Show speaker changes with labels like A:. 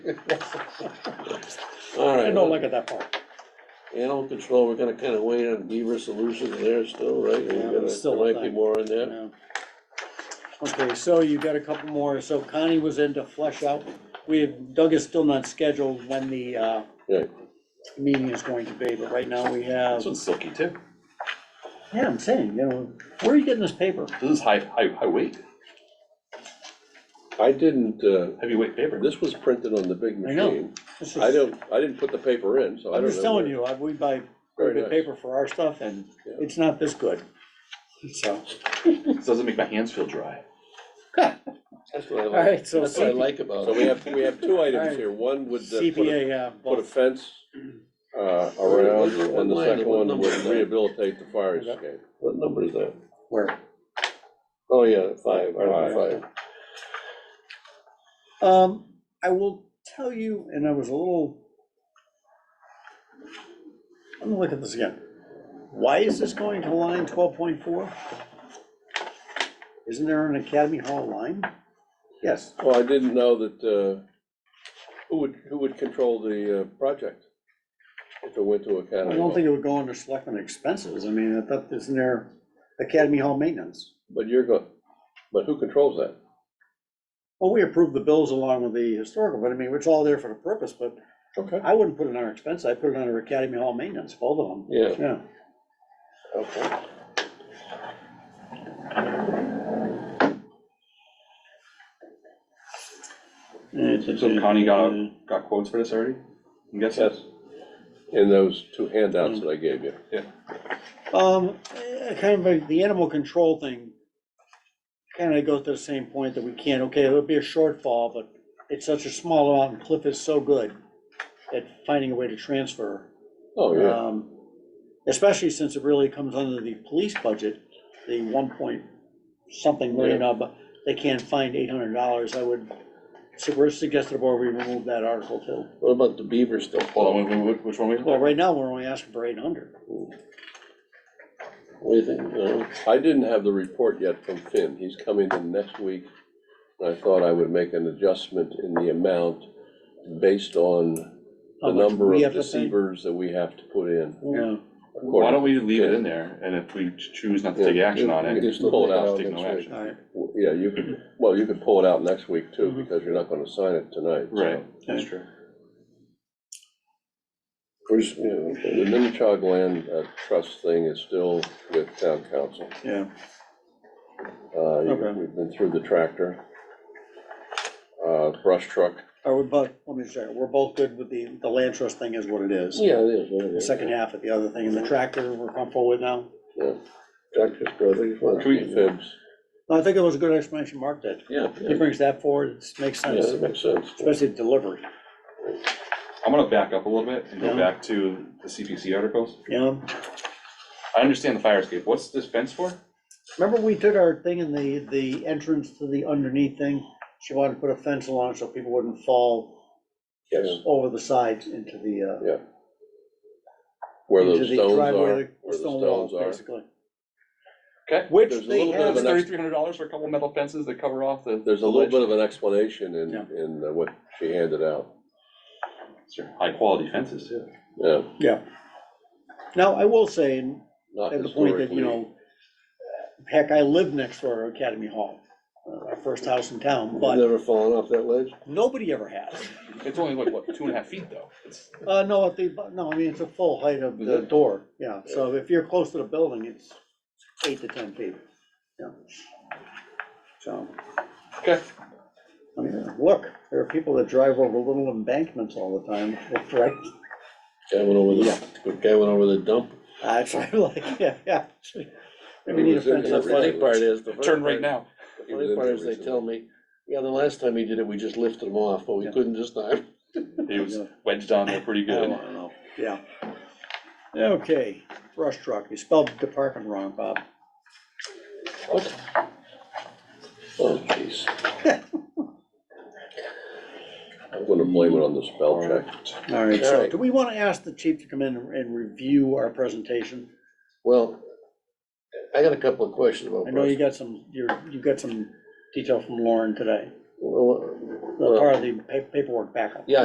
A: All
B: I
A: right,
B: don't look at that part.
A: animal control, we're gonna kinda wait on Beaver Solutions there still, right?
B: Yeah,
A: We're gonna,
B: it's still
A: there
B: a
A: might be
B: thing.
A: more in there.
B: No. Okay, so you got a couple more, so Connie was in to flesh out, we, Doug is still not scheduled when the, uh,
A: Right.
B: meeting is going to be, but right now we have,
C: This one's silky too.
B: yeah, I'm saying, you know, where are you getting this paper?
C: This is high, high, high weight,
A: I didn't, uh,
C: heavyweight paper.
A: this was printed on the big
B: I know.
A: machine.
B: This
A: I
B: is-
A: don't, I didn't put the paper in, so I don't
B: I'm
A: know.
B: just telling
A: where-
B: you, I- we buy
A: Very
B: very good
A: nice.
B: paper for our stuff, and
A: Yeah.
B: it's not this good, so.
C: This doesn't make my hands feel dry.
A: That's what I
B: All
A: like,
B: right, so
A: that's what I like about it. So we have, we have two items here, one would uh, put a
B: CPA, yeah,
A: put a
B: both,
A: fence uh, around, and the second one would rehabilitate the fire
B: Okay.
A: escape. What number is that?
B: where?
A: Oh, yeah, five, Article five.
B: Um, I will tell you, and I was a little. I'm gonna look at this again. Why is this going to line twelve point four? Isn't there an Academy Hall line? Yes,
A: Well, I didn't know that, uh, who would, who would control the uh, project if it went to
B: I
A: Academy
B: don't think
A: Hall?
B: it would go under selectmen expenses. I mean, I thought, isn't there Academy Hall maintenance?
A: But you're going, but who controls that?
B: Well, we approved the bills along with the historical, but I mean, it's all there for the purpose, but
A: Okay.
B: I wouldn't put it under expense. I'd put it under Academy Hall maintenance, both of them.
A: Yeah,
B: Yeah.
A: okay.
C: So Connie got, got quotes for this already? I'm guessing?
A: Yes. In those two handouts that I gave you.
B: Um, eh, kind of like the animal control thing, kind of goes to the same point that we can't, okay, it would be a shortfall, but it's such a small amount, and Cliff is so good at finding a way to transfer.
A: Oh, yeah,
B: um, Especially since it really comes under the police budget, the one point something million, uh, but they can't find eight hundred dollars, I would, so we're suggesting the board we remove that article too.
A: what about the beaver still?
C: Hold on, wh- wh- which one we?
B: Well, right now, we're only asking for eight hundred.
A: What do you think, Norm? I didn't have the report yet from Finn, he's coming in next week. And I thought I would make an adjustment in the amount based on the number of deceivers that we have to put in.
B: Yeah.
C: Why don't we leave it in there, and if we ch- choose not to take action on
A: You
C: it,
A: can
C: just
A: still
C: pull it
A: take it
C: out,
A: out
C: take no
A: next
C: action.
A: week.
B: All right,
A: Yeah, you could, well, you could pull it out next week too,
B: Mhm.
A: because you're not gonna sign it tonight. so.
C: Right, that's true.
A: Of course, you know, the Minichog Land uh, Trust thing is still with town council.
B: yeah.
A: Uh, you-
B: Okay.
A: We've been through the tractor, uh, brush truck.
B: Are we both, let me check, we're both good with the, the land trust thing is what it is.
A: Yeah, it is, it
B: The
A: is.
B: second half of the other thing, and the tractor, we're comfortable with now.
A: Yeah, Dr. Strother, you want
C: Can we-
A: to fibs?
B: No, I think it was a good explanation, Mark, that
A: Yeah, yeah,
B: he brings that forward, it makes
A: yeah, that
B: sense,
A: makes sense.
B: especially delivery,
C: I'm gonna back up a little bit and
B: Yeah.
C: go back to the CPC articles.
B: you know?
C: I understand the fire escape, what's this fence for?
B: Remember we did our thing in the, the entrance to the underneath thing? She wanted to put a fence along so people wouldn't fall
A: Yes,
B: over the sides into the, uh,
A: Yeah, where
B: into
A: those
B: the
A: stones are,
B: driveway,
A: where
B: the
A: the
B: stone
A: stones
B: walls,
A: are.
B: basically.
C: Okay.
B: Which
A: There's a
B: they
A: little bit of
B: have,
A: an ex-
C: Thirty-three hundred dollars for a couple metal fences that cover off the.
A: There's a little bit of an explanation in,
B: Yeah.
A: in uh, what she handed out.
C: High-quality fences, too.
A: Yeah,
B: yeah. Now, I will say, and
A: not
B: at the point that, you
A: historically.
B: know, heck, I lived next door to Academy Hall, uh, our first house in town, but
A: Never fallen off that ledge?
B: nobody ever has.
C: It's only like, what, two and a half feet, though? It's-
B: Uh, no, at the, no, I mean, it's a full height of the door, yeah, so if you're close to the building, it's eight to ten feet, yeah. So,
C: Okay,
B: I mean, look, there are people that drive over little embankments all the time, right?
A: Guy went over
B: Yeah.
A: the, guy went over the dump.
B: I try like, yeah, yeah. Maybe need a fence
A: The
B: up
A: funny
B: there.
A: part is, the
C: turn
A: funny part,
C: right now.
A: the funny part is they tell me, yeah, the last time he did it, we just lifted him off, but we
B: Yeah.
A: couldn't this time.
C: It was wedged on there pretty
B: Oh, I
C: good.
B: don't know. Yeah. Okay, brush truck, you spelled department wrong, Bob.
A: What? Oh, jeez. I'm gonna blame it on the spell check.
B: All right,
A: All
B: so
A: right.
B: do we want to ask the chief to come in and review our presentation?
A: Well, I got a couple of questions about
B: I know you
A: brush.
B: got some, you're, you got some detail from Lauren today.
A: Well,
B: part of the pa- paperwork backup.